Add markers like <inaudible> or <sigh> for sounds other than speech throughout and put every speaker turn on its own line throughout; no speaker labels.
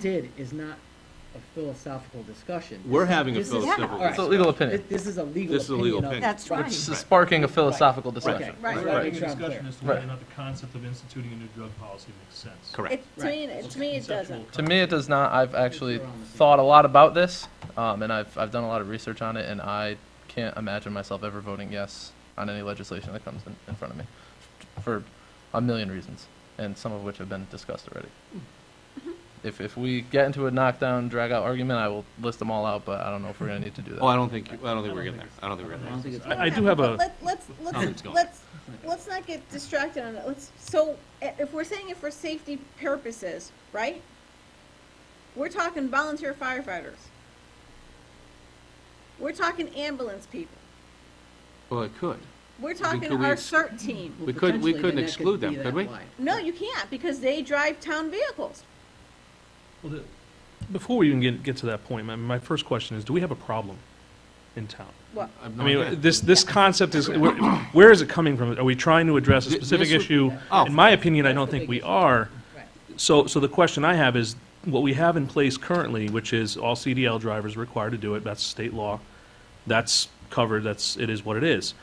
did is not a philosophical discussion.
We're having a
This is-
philosophical
All right.
It's a legal opinion.
This this is a legal
This is a legal
opinion
opinion.
of.
That's
Right.
right.
It's sparking a philosophical discussion.
Okay,
Right.
so I wanna
Having
make
a
sure I'm clear.
discussion as to whether or
Right.
not the concept of instituting a new drug policy makes sense.
Correct.
It, to me, it- to me, it
Conceptual
doesn't.
To me, it does not. I've actually
We're on the same
thought a lot about this, um, and I've, I've done a lot of research on it, and I can't imagine myself ever voting yes on any legislation that comes in, in front of me for a million reasons, and some of which have been discussed already. If, if we get into a knockdown, drag out argument, I will list them all out, but I don't know if we're going to need to do that.
Oh, I don't think, I don't think we're getting there. I don't think we're
I
getting
don't think
there.
it's.
I, I do have a,
Let, let's,
Concept's
let's,
gone.
let's, let's not get distracted on it. Let's, so, i- if we're saying it for safety purposes, right? We're talking volunteer firefighters. We're talking ambulance people.
Well, it could.
We're talking
could we
our
ex-
CERT team.
We could-
Potentially,
we couldn't
then that
exclude them,
be
could
that
we?
wide.
No, you can't, because they drive town vehicles.
well, the- before we even get, get to that point, my, my first question is, do we have a problem in town?
Well,
have no
I mean,
idea.
this, this concept is, where- where is it coming from? Are we trying to address a
Th-
specific
this would-
issue?
Oh.
In my opinion, I
That's
don't
the
think
big
we
issue.
are.
Right.
So, so the question I have is, what we have in place currently, which is all CDL drivers are required to do it, that's state law, that's covered, that's, it is what it is.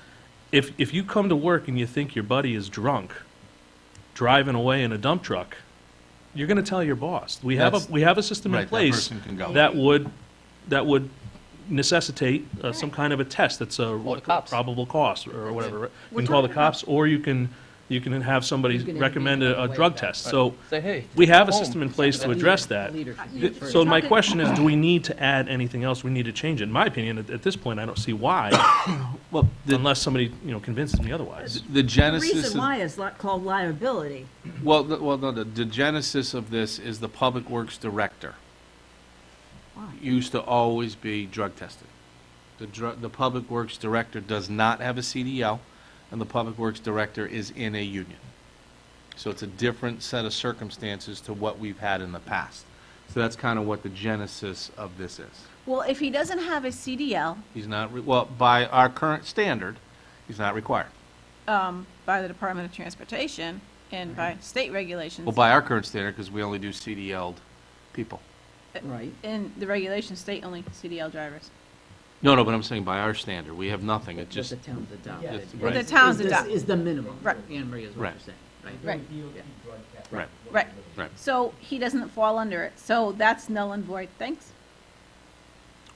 If, if you come to work and you think your buddy is drunk, driving away in a dump truck, you're gonna tell your boss. We have
That's-
a, we have a system
Right,
in
that
place
person can go.
that would, that would necessitate uh, some kind of a test that's a
the cops.
probable cause or whatever. right? You
We're
can call the
talking about-
cops, or you can, you can have somebody
You can
recommend
intervene
a,
in a
a
way
drug
that-
test. So
Say, hey.
we have a
home.
system in place to
Leader-
address that.
leader should be
You-
the first.
So my
Talking-
question is,
<coughs>
do we need to add anything else? We need to change it. In my opinion, at, at this point, I don't
<coughs>
see why,
Well, the,
unless somebody, you know, convinces me otherwise.
the
The
genesis,
reason
of-
why is li- called liability.
well, the- well, no, the the genesis of this is the Public Works Director
Why?
used to always be drug tested. The dr, the Public Works Director does not have a CDL, and the Public Works Director is in a union. So it's a different set of circumstances to what we've had in the past. So that's kind of what the genesis of this is.
well, if he doesn't have a CDL,
He's not, re- well, by our current standard, he's not required.
um, by the Department of Transportation and by state regulations.
Well, by our current standard, because we only do CDL'd people.
Right.
In the regulations state only CDL drivers.
No, no, but I'm saying by our standard, we have nothing, it
What the
just,
town's adopted.
Just-
is-
What the
is
town's
this-
adopt-
Is the minimum.
Right.
Anne Marie is what
Right.
you're saying, right?
Right.
right,
Right.
right.
So he doesn't fall under it. So that's null and void. Thanks.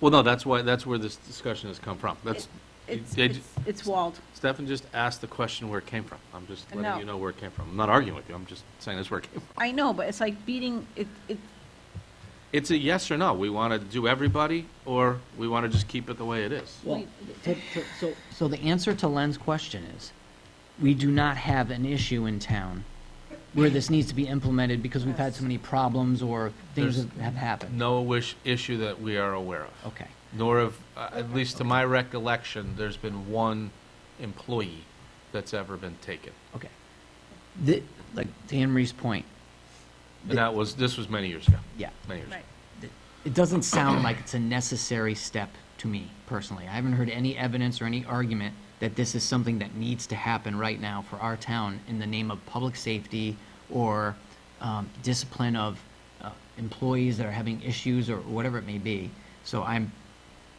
Well, no, that's why, that's where this discussion has come from. That's,
It's,
Did-
it's, it's walled.
Stefan just asked the question where it came from. I'm just
No.
letting you know where it came from. I'm not arguing with you, I'm just saying that's where it came from.
I know, but it's like beating, it, it,
It's a yes or no, we want to do everybody, or we want to just keep it the way it is.
Well,
We-
to- to- so, so the answer to Len's question is, we do not have an issue in town where this needs to be implemented because we've had so many problems or things
There's-
that have happened.
No wish, issue that we are aware of.
Okay.
nor have, uh, at least to my recollection, there's been one employee that's ever been taken.
Okay. The, like, to Anne Marie's point,
And that was, this was many years ago,
yeah,
many years ago.
right.
it doesn't sound like it's a necessary step to me personally. I haven't heard any evidence or any argument that this is something that needs to happen right now for our town in the name of public safety or um, discipline of uh, employees that are having issues or whatever it may be. So I'm,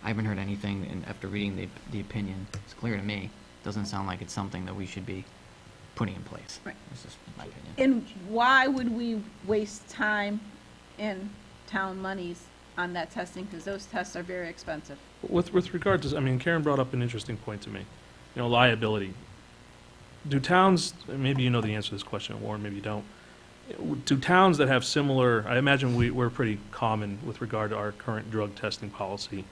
I haven't heard anything, and after reading the, the opinion, it's clear to me, doesn't sound like it's something that we should be putting in place.
Right.
That's just my opinion.
and why would we waste time and town monies on that testing? Because those tests are very expensive.
With, with regard to, I mean, Karen brought up an interesting point to me, you know, liability. Do towns, maybe you know the answer to this question, Warren, maybe you don't. Do towns that have similar, I imagine we, we're pretty common with regard to our current drug testing policy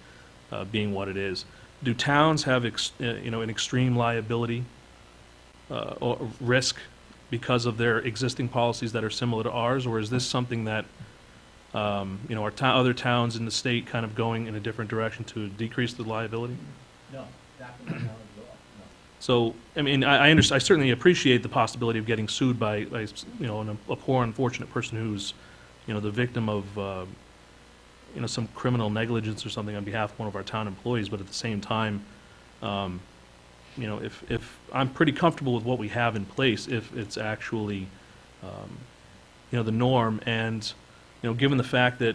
uh, being what it is. Do towns have, ex- uh, you know, an extreme liability uh, or risk because of their existing policies that are similar to ours? Or is this something that um, you know, are to- other towns in the state kind of going in a different direction to decrease the liability?
No, not from my knowledge at all, no.
So, I mean, I, I understand, I certainly appreciate the possibility of getting sued by, by, you know, an- a poor unfortunate person who's, you know, the victim of, uh, you know, some criminal negligence or something on behalf of one of our town employees, but at the same time, um, you know, if, if, I'm pretty comfortable with what we have in place, if it's actually, um, you know, the norm, and you know, given the fact that